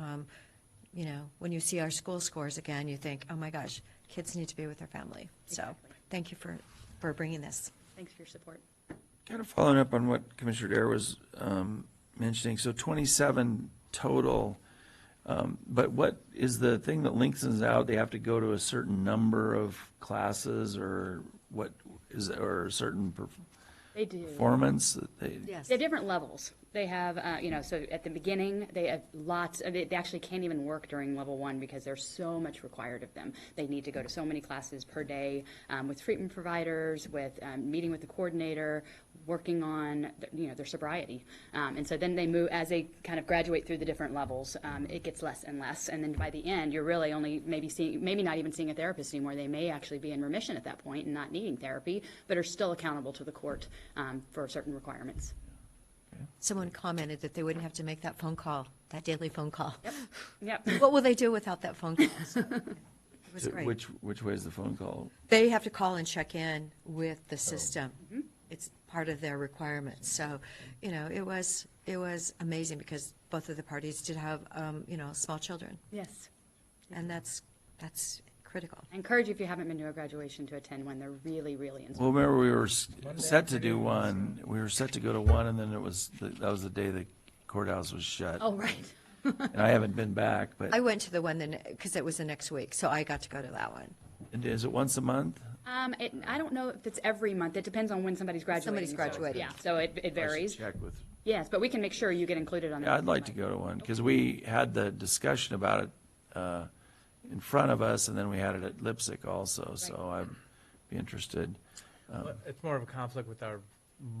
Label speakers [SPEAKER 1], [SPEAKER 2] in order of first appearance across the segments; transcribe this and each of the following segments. [SPEAKER 1] um, you know, when you see our school scores again, you think, oh my gosh, kids need to be with their family. So
[SPEAKER 2] Exactly.
[SPEAKER 1] thank you for, for bringing this.
[SPEAKER 2] Thanks for your support.
[SPEAKER 3] Kind of following up on what Commissioner Dare was um, mentioning, so 27 total, um, but what is the thing that lengthens out? They have to go to a certain number of classes or what is, or a certain per-
[SPEAKER 2] They do.
[SPEAKER 3] performance that they?
[SPEAKER 1] Yes.
[SPEAKER 2] They're different levels. They have, uh, you know, so at the beginning, they have lots, of- they they actually can't even work during level one because there's so much required of them. They need to go to so many classes per day um, with treatment providers, with um, meeting with the coordinator, working on, th- you know, their sobriety. Um, And so then they move, as they kind of graduate through the different levels, um, it gets less and less. And then by the end, you're really only maybe seeing, maybe not even seeing a therapist anymore. They may actually be in remission at that point and not needing therapy, but are still accountable to the court um, for certain requirements.
[SPEAKER 1] Someone commented that they wouldn't have to make that phone call, that daily phone call.
[SPEAKER 2] Yep.
[SPEAKER 1] What will they do without that phone call? So, It was
[SPEAKER 3] to-
[SPEAKER 1] great.
[SPEAKER 3] Uh, Which, which way is the phone call?
[SPEAKER 1] They have to call and check in with the system.
[SPEAKER 2] Mm-hmm.
[SPEAKER 1] It's part of their requirements. So, you know, it was, it was amazing because both of the parties did have, um, you know, small children.
[SPEAKER 2] Yes. Mm-hmm.
[SPEAKER 1] And that's, that's critical.
[SPEAKER 2] I encourage you, if you haven't been to a graduation, to attend one. They're really, really inspiring.
[SPEAKER 3] Well, remember, we were s- set to do one, we were set to go to one, and then it was, that was the day the courthouse was shut.
[SPEAKER 2] Oh, right.
[SPEAKER 3] And I haven't been back,
[SPEAKER 1] I
[SPEAKER 3] but,
[SPEAKER 1] went to the one then, because it was the next week, so I got to go to that one.
[SPEAKER 3] and is it once a month?
[SPEAKER 2] Um, it, I don't know if it's every month. It depends on when somebody's graduating.
[SPEAKER 1] Somebody's
[SPEAKER 2] so-
[SPEAKER 1] graduating.
[SPEAKER 2] Yeah, so it, it
[SPEAKER 3] I should
[SPEAKER 2] varies.
[SPEAKER 3] Check with
[SPEAKER 2] Yes, but we can make sure you get included on. the
[SPEAKER 3] Yeah, I'd like to
[SPEAKER 2] website.
[SPEAKER 3] go to one, because we had the discussion about it uh, in front of us, and then we had it at Lipsick also, so I'd be interested.
[SPEAKER 4] Well, It's more of a conflict with our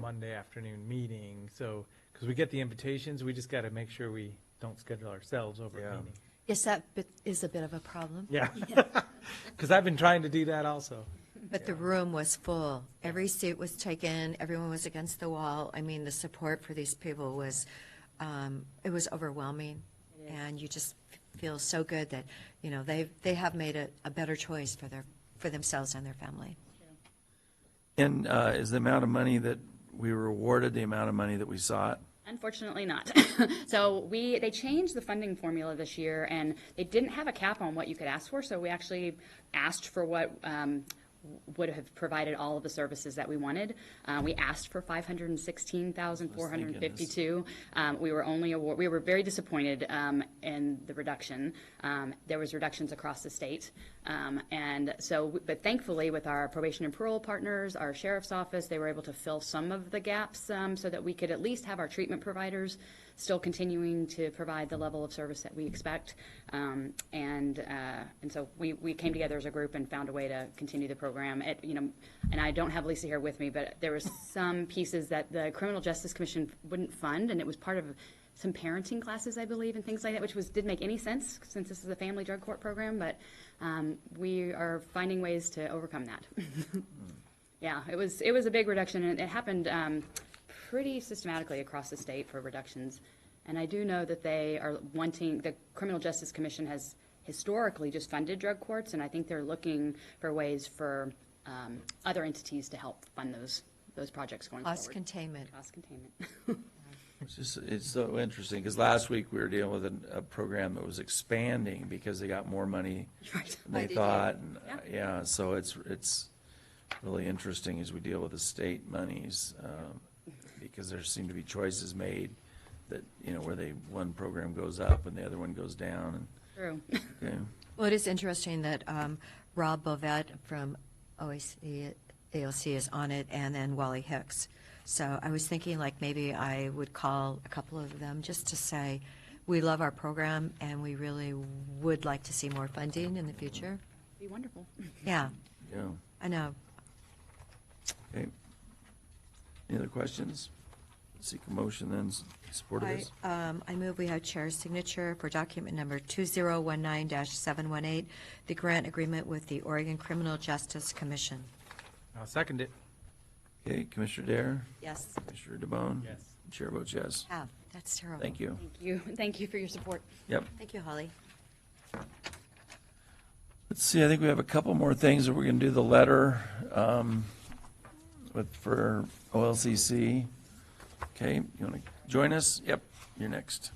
[SPEAKER 4] Monday afternoon meeting, so, because we get the invitations, we just got to make sure we don't schedule ourselves over a
[SPEAKER 3] Yeah.
[SPEAKER 4] meeting.
[SPEAKER 1] Yes, that bit is a bit of a problem,
[SPEAKER 4] Yeah. Because I've been trying to do that also.
[SPEAKER 1] but the room was full. Every seat was taken, everyone was against the wall. I mean, the support for these people was, um, it was overwhelming. And you just feel so good that, you know, they, they have made a, a better choice for their, for themselves and their family.
[SPEAKER 3] And uh, is the amount of money that we were awarded, the amount of money that we sought?
[SPEAKER 2] Unfortunately not. So we, they changed the funding formula this year and they didn't have a cap on what you could ask for, so we actually asked for what um, would have provided all of the services that we wanted. Uh, We asked for five hundred and sixteen thousand, four hundred and fifty-two. Um, We were only, award- we were very disappointed um, in the reduction. Um, There was reductions across the state. Um, And so, but thankfully with our probation and parole partners, our sheriff's office, they were able to fill some of the gaps um, so that we could at least have our treatment providers still continuing to provide the level of service that we expect. Um, And, uh, and so we, we came together as a group and found a way to continue the program. It, you know, and I don't have Lisa here with me, but there was some pieces that the Criminal Justice Commission wouldn't fund, and it was part of some parenting classes, I believe, and things like that, which was, didn't make any sense since this is a family drug court program, but um, we are finding ways to overcome that. Yeah, it was, it was a big reduction, and it happened um, pretty systematically across the state for reductions. And I do know that they are wanting, the Criminal Justice Commission has historically just funded drug courts, and I think they're looking for ways for um, other entities to help fund those, those projects going
[SPEAKER 1] Cost
[SPEAKER 2] forward.
[SPEAKER 1] containment.
[SPEAKER 2] Cost containment.
[SPEAKER 3] It's just, it's so interesting, because last week we were dealing with an- a program that was expanding because they got more money
[SPEAKER 2] Right.
[SPEAKER 3] than they
[SPEAKER 1] Right, they did.
[SPEAKER 3] thought. and, uh,
[SPEAKER 2] Yeah.
[SPEAKER 3] Yeah, so it's, it's really interesting as we deal with the state monies, um,
[SPEAKER 2] Mm-hmm.
[SPEAKER 3] because there seem to be choices made that, you know, where they, one program goes up and the other one goes down,
[SPEAKER 2] True.
[SPEAKER 3] and, okay.
[SPEAKER 1] Well, it is interesting that um, Rob Bovet from OAC, AOC is on it, and then Wally Hicks. So I was thinking, like, maybe I would call a couple of them just to say, we love our program, and we really would like to see more funding in the future.
[SPEAKER 2] Be wonderful.
[SPEAKER 1] Yeah,
[SPEAKER 3] Yeah,
[SPEAKER 1] I know.
[SPEAKER 3] okay. Any other questions? Seek a motion then, s- support of
[SPEAKER 1] I,
[SPEAKER 3] this?
[SPEAKER 1] um, I move we have chair's signature for document number 2019-718, the grant agreement with the Oregon Criminal Justice Commission.
[SPEAKER 4] I'll second it.
[SPEAKER 3] Okay, Commissioner Dare,
[SPEAKER 1] Yes.
[SPEAKER 3] Commissioner DeBonne?
[SPEAKER 4] Yes.
[SPEAKER 3] Chair votes yes.
[SPEAKER 1] Yeah, that's terrible.
[SPEAKER 3] Thank you.
[SPEAKER 2] Thank you, thank you for your support.
[SPEAKER 3] Yep.
[SPEAKER 1] Thank you, Holly.
[SPEAKER 3] Let's see, I think we have a couple more things that we're gonna do the letter, um, with, for OLCC. Okay, you wanna join us? Yep, you're next.